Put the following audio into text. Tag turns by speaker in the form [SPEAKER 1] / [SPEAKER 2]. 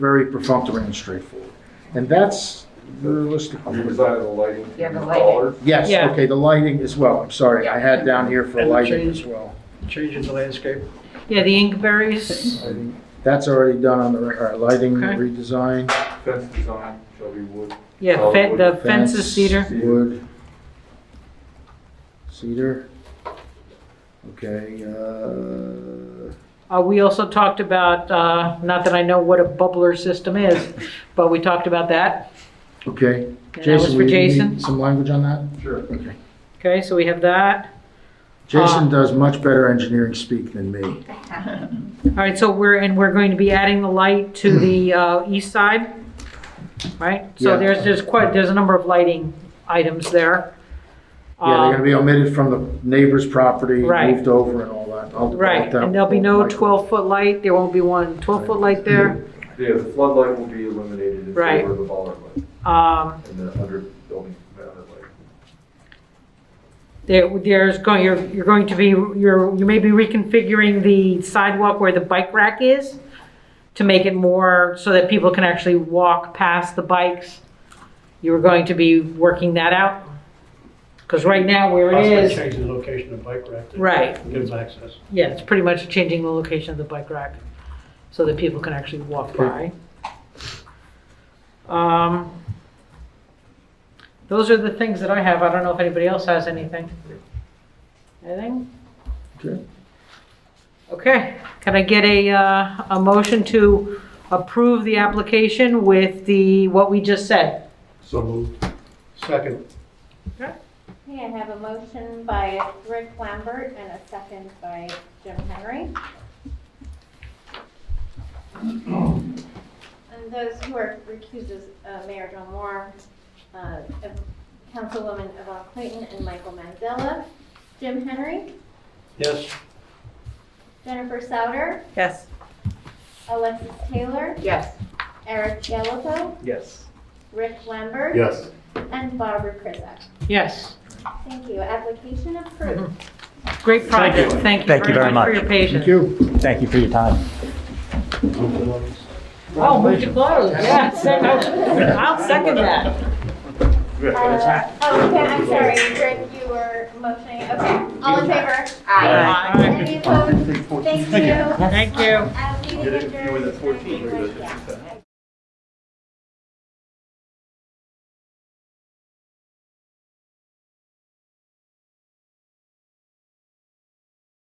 [SPEAKER 1] very perfunctory and straightforward. And that's realistically.
[SPEAKER 2] You decided the lighting.
[SPEAKER 3] Yeah, the
[SPEAKER 2] the
[SPEAKER 3] lighting.
[SPEAKER 2] colors?
[SPEAKER 1] Yes,
[SPEAKER 4] Yeah.
[SPEAKER 1] okay, the lighting as well, I'm sorry, I had down here for
[SPEAKER 5] And the
[SPEAKER 1] lighting
[SPEAKER 5] trees.
[SPEAKER 1] as well.
[SPEAKER 5] change in the landscape.
[SPEAKER 4] Yeah, the inkberries,
[SPEAKER 1] Lighting. That's already done on the, re- all right, lighting
[SPEAKER 4] Okay.
[SPEAKER 1] redesign.
[SPEAKER 2] Fence design shall be wood.
[SPEAKER 4] yeah, fe- the fence is
[SPEAKER 1] Oh, Fence,
[SPEAKER 4] cedar.
[SPEAKER 1] Wood. Cedar. Okay, uh,
[SPEAKER 4] Uh, we also talked about, uh, not that I know what a bubbler system is, but we talked about that.
[SPEAKER 1] okay.
[SPEAKER 4] And that was
[SPEAKER 1] Jason,
[SPEAKER 4] for
[SPEAKER 1] we need
[SPEAKER 4] Jason.
[SPEAKER 1] Some language on that?
[SPEAKER 2] Sure.
[SPEAKER 1] Okay.
[SPEAKER 4] Okay, so we have that.
[SPEAKER 1] Jason
[SPEAKER 4] Uh,
[SPEAKER 1] does much better engineering speak than me.
[SPEAKER 4] All right, so we're, and we're going to be adding the light to the, uh, east side, right?
[SPEAKER 1] Yeah.
[SPEAKER 4] So there's, there's quite, there's a number of lighting items there.
[SPEAKER 1] Yeah, they're gonna
[SPEAKER 4] Um,
[SPEAKER 1] be omitted from the neighbor's property,
[SPEAKER 4] Right.
[SPEAKER 1] moved over and all that. I'll- I'll-
[SPEAKER 4] Um, Right,
[SPEAKER 1] that-
[SPEAKER 4] and there'll be no
[SPEAKER 1] Michael.
[SPEAKER 4] 12-foot light, there won't be one 12-foot light
[SPEAKER 1] Mm-hmm.
[SPEAKER 4] there.
[SPEAKER 2] Yeah, the floodlight will be eliminated in
[SPEAKER 4] Right.
[SPEAKER 2] favor of the bollard light
[SPEAKER 4] Um,
[SPEAKER 2] and the under building mounted light.
[SPEAKER 4] There, there's going, you're, you're going to be, you're, you may be reconfiguring the sidewalk where the bike rack is to make it more, so that people can actually walk past the bikes. You're going to be working that out? Because right now where it
[SPEAKER 5] Possibly
[SPEAKER 4] is,
[SPEAKER 5] change the location of bike rack. that
[SPEAKER 4] right,
[SPEAKER 5] Gives access.
[SPEAKER 4] yeah, it's pretty much changing the location of the bike rack so that people can actually walk by. Um, Those are the things that I have. I don't know if anybody else has anything. Anything?
[SPEAKER 1] Okay.
[SPEAKER 4] Okay, can I get a, uh, a motion to approve the application with the, what we just said?
[SPEAKER 5] So moved. Second.
[SPEAKER 6] Okay, I have a motion by Rick Lambert and a second by Jim Henry. And those who are recused is uh, Mayor John Moore, uh, Councilwoman Yvonne Clayton, and Michael Mandela. Jim Henry,
[SPEAKER 5] Yes.
[SPEAKER 6] Jennifer Souter,
[SPEAKER 4] Yes.
[SPEAKER 6] Alexis Taylor,
[SPEAKER 3] Yes.
[SPEAKER 6] Eric Gallopo,
[SPEAKER 5] Yes.
[SPEAKER 6] Rick Lambert.
[SPEAKER 5] Yes.
[SPEAKER 6] And Barbara Krizak.
[SPEAKER 4] Yes,
[SPEAKER 6] Thank you. Application approved.
[SPEAKER 4] great project. Thank
[SPEAKER 7] Thank
[SPEAKER 4] you very much for your
[SPEAKER 1] Thank
[SPEAKER 4] patience.
[SPEAKER 1] you.
[SPEAKER 7] Thank you for your time.
[SPEAKER 4] Oh, move to close, yeah, second, I'll second that.
[SPEAKER 6] Uh, Oh, okay, I'm sorry, Rick, you were motioning, okay. All in favor?
[SPEAKER 4] Aye.
[SPEAKER 6] Any opposed? Thank you.
[SPEAKER 4] Thank you.
[SPEAKER 6] I'm leaving adjourned. You were the 14th.